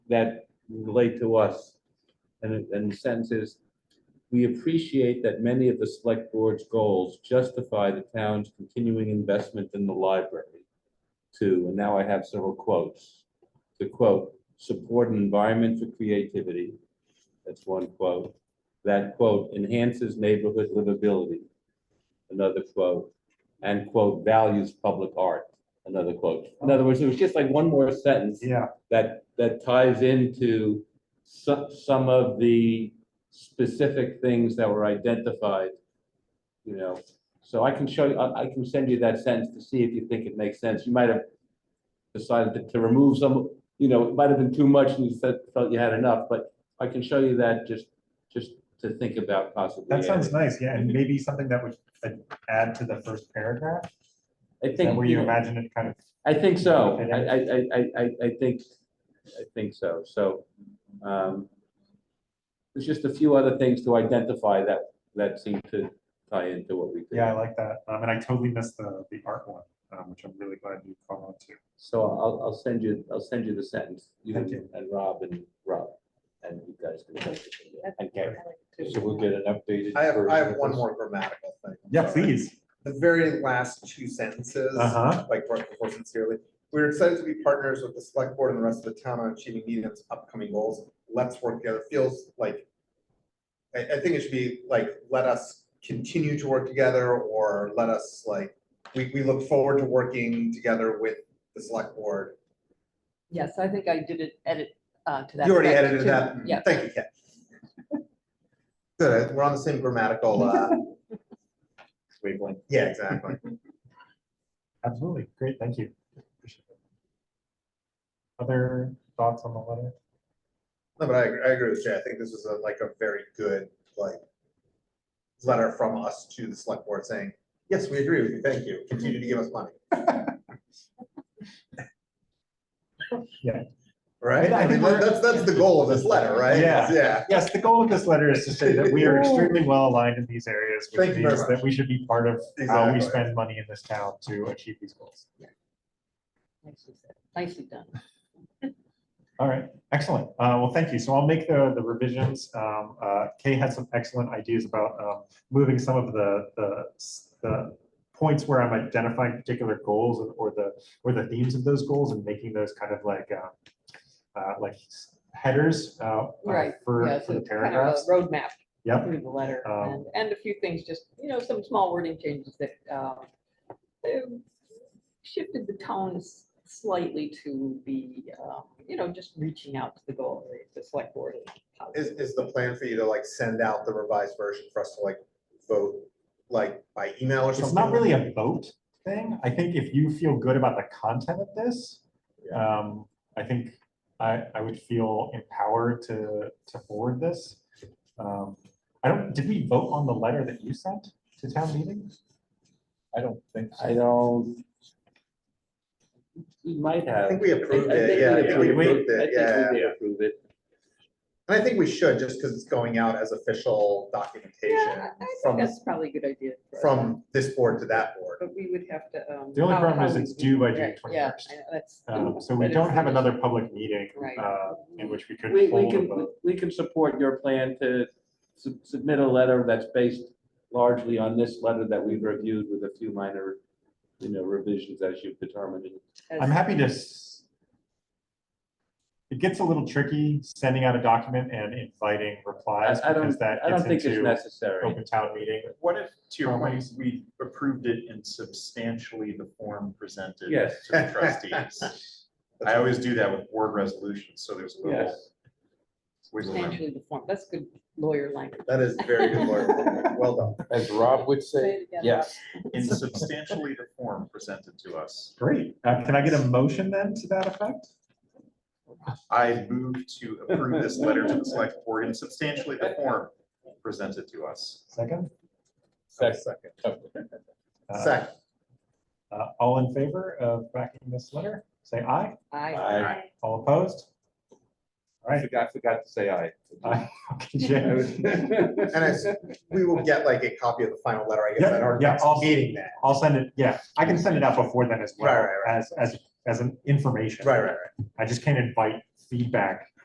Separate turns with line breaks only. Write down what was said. that relate to us. And, it- and the sentence is, we appreciate that many of the select board's goals justify the town's continuing investment in the library. Too, and now I have several quotes. The quote, support an environment for creativity. That's one quote. That quote enhances neighborhood livability. Another quote, and quote, values public art, another quote. In other words, it was just like one more sentence
Yeah,
that, that ties into some, some of the specific things that were identified, you know. So I can show you, I, I can send you that sentence to see if you think it makes sense. You might have decided to- to remove some, you know, it might have been too much and you felt, felt you had enough, but I can show you that just, just to think about possibly.
that sounds
adding.
nice, yeah, and maybe something that would uh, add to the first paragraph,
I
is that
think,
where
you
you
know,
imagine it kind of,
I think so.
Okay,
I, I, I- I, I, I think, I think so. So, um, there's just a few other things to identify that, that seem to tie into what we did.
yeah, I like that, um, and I totally missed the, the art one, um, which I'm really glad you called on to.
So I'll, I'll send you, I'll send you the sentence, you
Thank
and
you.
and Rob and Rob, and you guys can. take it from there. Okay,
I like
so we'll get an updated.
I have, I
version
have
of
one
this.
more grammatical thing. I'm
Yeah,
sorry.
please,
The very last two sentences,
Uh-huh.
like right before sincerely, we're excited to be partners with the select board and the rest of the town on achieving Needham's upcoming goals. Let's work together. Feels like, I, I think it should be like, let us continue to work together or let us like, we, we look forward to working together with the select board.
Yes, I think I did it, edit uh, to that.
You already
effect,
edited
too.
that.
Yeah,
Thank you, Kat. Good, we're on the same grammatical, uh, wavelength. Yeah, exactly.
absolutely, great, thank you. Appreciate it. Other thoughts on the letter?
No, but I, agree- I agree with Jay. I think this was a, like a very good, like, letter from us to the select board saying, yes, we agree with you. Thank you. Continue to give us money.
Yeah.
Right?
I
I
think
mean, that-
we're-
that's, that's the goal of this letter, right?
Yeah.
Yeah.
Yes, the goal of this letter is to say that we are extremely well aligned in these areas,
Thank
which
you very
means that
much.
we should be part of how we
Exactly.
spend money in this town to achieve these goals.
nicely said. Nicely done.
Uh, All right, excellent. Uh, Well, thank you. So I'll make the the revisions. Um, uh, Kay had some excellent ideas about um, moving some of the, the s- the points where I'm identifying particular goals and- or the, or the themes of those goals and making those kind of like, uh, uh, like headers uh, uh,
Right. Yeah,
for,
so
for the
it's kind of a
paragraphs.
Roadmap
Yep.
through the letter
Um,
and, and a few things, just, you know, some small wording changes that um, they shifted the tone slightly to be, um, you know, just reaching out to the goal, the select board.
Is, is the plan for you to like send out the revised version for us to like vote, like by email or something?
It's not really a vote thing. I think if you feel good about the content of this, um, I think I, I would feel empowered to, to forward this. Um, I don't, did we vote on the letter that you sent to town meeting? I don't think
I don't. We might
I
have.
think we
I- I
approved
think
it. Yeah, I think we
approved
approved
I
it.
think we
Yeah.
did approve it.
And I think we should, just because it's going out as official documentation
Yeah, I think
from,
that's probably a good idea. for us.
from this board to that board.
But we would have to. um,
The only
how-
problem
how
is
we
it's
do-
due by June
right, yeah,
21st.
I know, That's.
Um, So we
but
don't
it's-
have another public meeting,
Right.
uh, in which we could
We, we
hold a
can,
vote.
we can support your plan to su- submit a letter that's based largely on this letter that we've reviewed with a few minor, you know, revisions as you've determined.
as-
I'm happy to. s- It gets a little tricky sending out a document and inviting replies
I- I don't-
because that
I don't think
gets
it's
into
necessary.
open town meeting.
What if, to your point,
Problems.
we approved it in substantially the form presented to
Yes.
the trustees? I always do that with board resolutions, so there's a little.
Yes.
wiggle room.
Substantially the form, that's good lawyer language.
That is very good work. Well done.
As Rob would
Say
say,
it again, Rob.
yes.
In substantially the form presented to us,
Great. Uh, Can I get a motion then to that effect?
I move to approve this letter to the select board in substantially the form presented to us.
Second?
Second.
Uh,
Second.
uh, All in favor of backing this letter? Say aye.
I,
I
All opposed? All right.
forgot, forgot to say aye.
Aye. Okay, Jay.
And I, we will get like a copy of the final letter, I guess, at our
Yeah, yeah,
next
I'll-
meeting then.
I'll send it, yeah, I can send it out before then as well,
Right, right,
as, as, as an information.
Right, right, right.
I just can't invite feedback